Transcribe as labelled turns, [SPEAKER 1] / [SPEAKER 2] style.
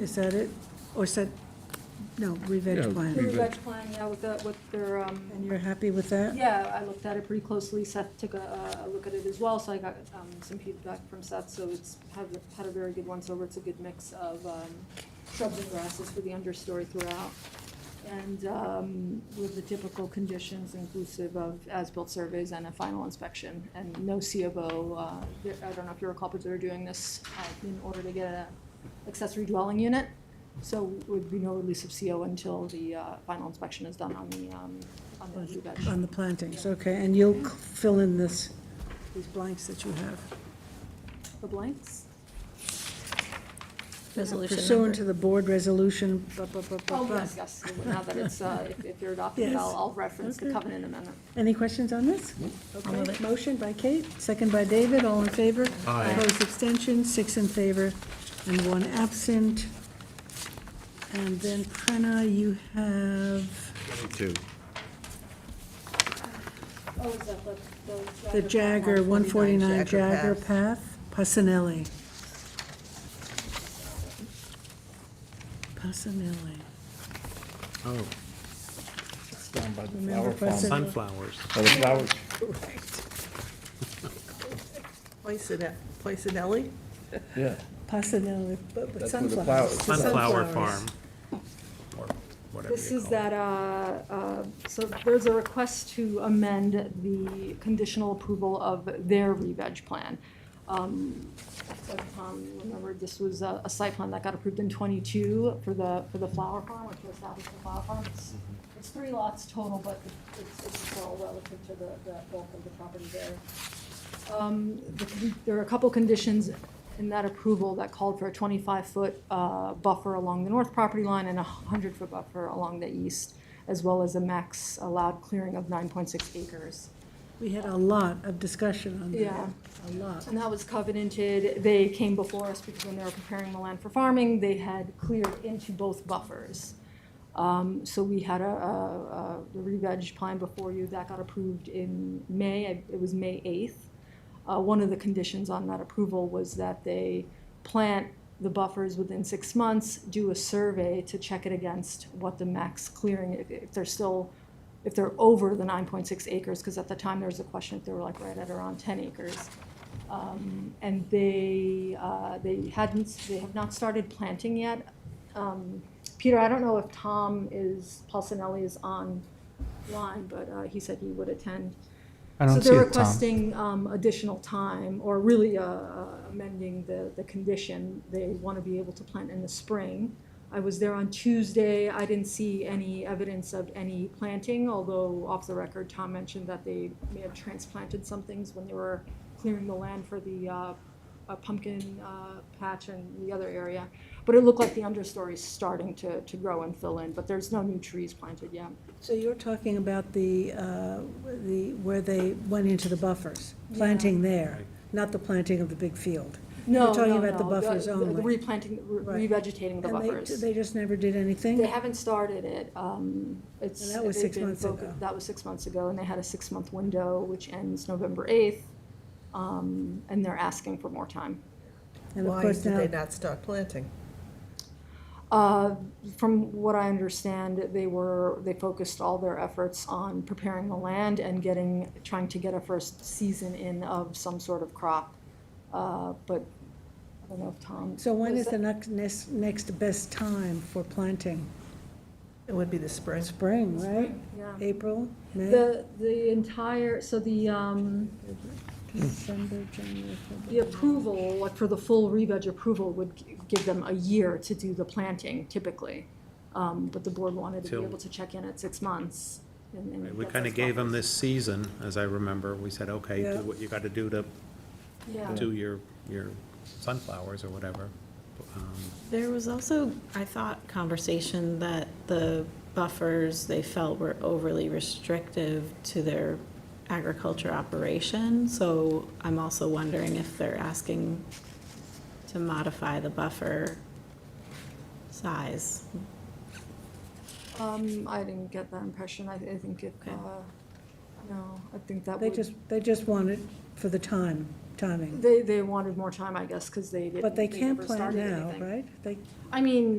[SPEAKER 1] Is that it? Or is that, no, revenge
[SPEAKER 2] Yeah,
[SPEAKER 1] plan?
[SPEAKER 2] we-
[SPEAKER 3] The reg plan, yeah, with the, with their, um,
[SPEAKER 1] And you're happy with that?
[SPEAKER 3] yeah, I looked at it pretty closely, Seth took a, a look at it as well, so I got, um, some feedback from Seth, so it's, had, had a very good once over, it's a good mix of, um, shrubs and grasses for the understory throughout. And, um, with the typical conditions inclusive of as-built surveys and a final inspection, and no C of O, uh, there- I don't know if you recall, but they're doing this, uh, in order to get a accessory dwelling unit. So would be no release of CO until the, uh, final inspection is done on the, um, on the new veg.
[SPEAKER 1] On the plantings, okay, and you'll c- fill in this, these blanks that you have.
[SPEAKER 3] The blanks?
[SPEAKER 4] Resolution
[SPEAKER 1] Pursuant
[SPEAKER 4] number.
[SPEAKER 1] to the board resolution, blah, blah, blah, blah,
[SPEAKER 3] Oh,
[SPEAKER 1] blah.
[SPEAKER 3] yes, yes, now that it's, uh, if- if you're adopting it, I'll,
[SPEAKER 1] Yes.
[SPEAKER 3] I'll reference the
[SPEAKER 1] Okay.
[SPEAKER 3] covenant amendment.
[SPEAKER 1] Any questions on this?
[SPEAKER 4] move
[SPEAKER 1] Okay,
[SPEAKER 4] it.
[SPEAKER 1] motion by Kate, second by David, all in favor?
[SPEAKER 2] Aye.
[SPEAKER 1] Opposed, extensions, six in favor and one absent. And then Prena, you have
[SPEAKER 2] Two.
[SPEAKER 3] Oh, is that the,
[SPEAKER 1] the Jagger, 149 Jagger
[SPEAKER 4] Jagger
[SPEAKER 1] Path, Pasanelli. Pasanelli.
[SPEAKER 2] Oh,
[SPEAKER 4] It's down by the
[SPEAKER 1] Remember
[SPEAKER 4] flower farm.
[SPEAKER 1] President-
[SPEAKER 5] Sunflowers.
[SPEAKER 2] oh, the flowers.
[SPEAKER 6] Poisonelli, Poisonelli?
[SPEAKER 2] Yeah.
[SPEAKER 1] Pasanelli, but but
[SPEAKER 2] That's where the
[SPEAKER 1] sunflowers.
[SPEAKER 2] flowers-
[SPEAKER 5] Sunflower
[SPEAKER 1] Sunflowers.
[SPEAKER 5] Farm. Or whatever
[SPEAKER 3] This
[SPEAKER 5] you
[SPEAKER 3] is
[SPEAKER 5] call it.
[SPEAKER 3] that, uh, uh, so there's a request to amend the conditional approval of their re-veg plan. Um, so Tom, remember, this was a, a site plan that got approved in twenty-two for the, for the flower farm, which was established the flower farm. It's- It's three lots total, but it's, it's all relative to the, the bulk of the property there. Um, the con- There are a couple conditions in that approval that called for a 25-foot uh, buffer along the north property line and a 100-foot buffer along the east, as well as a max allowed clearing of 9.6 acres.
[SPEAKER 1] We had a lot of discussion on that.
[SPEAKER 3] Yeah.
[SPEAKER 1] A lot.
[SPEAKER 3] And that was covenanted. They came before us because when they were preparing the land for farming, they had cleared into both buffers. Um, So we had a, a, a the re-veg plan before you that got approved in May. I- It was May 8th. Uh, One of the conditions on that approval was that they plant the buffers within six months, do a survey to check it against what the max clearing, if- if they're still, if they're over the 9.6 acres, because at the time there was a question if they were like right at around 10 acres. Um, And they, uh, they hadn't, they have not started planting yet. Um, Peter, I don't know if Tom is, Paulsonelli is online, but uh, he said he would attend.
[SPEAKER 7] I don't
[SPEAKER 3] So
[SPEAKER 7] see
[SPEAKER 3] they're
[SPEAKER 7] it, Tom.
[SPEAKER 3] requesting um, additional time, or really uh, uh, amending the, the condition. They want to be able to plant in the spring. I was there on Tuesday. I didn't see any evidence of any planting, although off the record, Tom mentioned that they may have transplanted some things when they were clearing the land for the uh, uh, pumpkin uh, patch and the other area. But it looked like the understory is starting to, to grow and fill in, but there's no new trees planted yet.
[SPEAKER 1] So you're talking about the, uh, the, where they went into the buffers, planting there, not the planting of the big field.
[SPEAKER 3] No,
[SPEAKER 1] You're talking
[SPEAKER 3] no,
[SPEAKER 1] about the
[SPEAKER 3] no,
[SPEAKER 1] buffers
[SPEAKER 3] the- the
[SPEAKER 1] only.
[SPEAKER 3] Replanting, re-
[SPEAKER 1] Right.
[SPEAKER 3] revegetating the
[SPEAKER 1] And they-
[SPEAKER 3] buffers.
[SPEAKER 1] They just never did
[SPEAKER 3] They
[SPEAKER 1] anything?
[SPEAKER 3] haven't started it. Um, It's.
[SPEAKER 1] And that was
[SPEAKER 3] they've
[SPEAKER 1] six
[SPEAKER 3] been
[SPEAKER 1] months
[SPEAKER 3] focus-
[SPEAKER 1] ago.
[SPEAKER 3] That was six months ago, and they had a six-month window, which ends November 8th. um, And they're asking for more time.
[SPEAKER 1] And of
[SPEAKER 6] Why did
[SPEAKER 1] course now,
[SPEAKER 6] they not start planting?
[SPEAKER 3] Uh, From what I understand, they were, they focused all their efforts on preparing the land and getting, trying to get a first season in of some sort of crop. Uh, But I don't know if Tom.
[SPEAKER 1] so when
[SPEAKER 3] was
[SPEAKER 1] is
[SPEAKER 3] that-
[SPEAKER 1] the next, next- next best time for planting?
[SPEAKER 6] It would be the spring.
[SPEAKER 1] Spring, right?
[SPEAKER 3] Yeah.
[SPEAKER 1] April, May,
[SPEAKER 3] The, the entire, so the, um,
[SPEAKER 1] December, January,
[SPEAKER 3] The
[SPEAKER 1] February?
[SPEAKER 3] approval, like for the full re-veg approval, would g- give them a year to do the planting typically. Um, But the board wanted to be
[SPEAKER 5] Till-
[SPEAKER 3] able to check in at six months. and- and
[SPEAKER 5] We
[SPEAKER 3] get
[SPEAKER 5] kind
[SPEAKER 3] those
[SPEAKER 5] of gave them
[SPEAKER 3] buffers.
[SPEAKER 5] this season, as I remember. We said, okay,
[SPEAKER 1] Yeah.
[SPEAKER 5] do what you got to do to
[SPEAKER 3] Yeah.
[SPEAKER 5] do your, your sunflowers or whatever. Um,
[SPEAKER 4] There was also, I thought, conversation that the buffers they felt were overly restrictive to their agriculture operation. So I'm also wondering if they're asking to modify the buffer size.
[SPEAKER 3] Um, I didn't get that impression. I, I think if,
[SPEAKER 4] Okay.
[SPEAKER 3] uh, no, I think that
[SPEAKER 1] They
[SPEAKER 3] would.
[SPEAKER 1] just, they just want it for the time, timing.
[SPEAKER 3] They, they wanted more time, I guess, because they didn't.
[SPEAKER 1] But they can
[SPEAKER 3] never
[SPEAKER 1] plant
[SPEAKER 3] started
[SPEAKER 1] now,
[SPEAKER 3] anything.
[SPEAKER 1] right? They
[SPEAKER 3] I mean,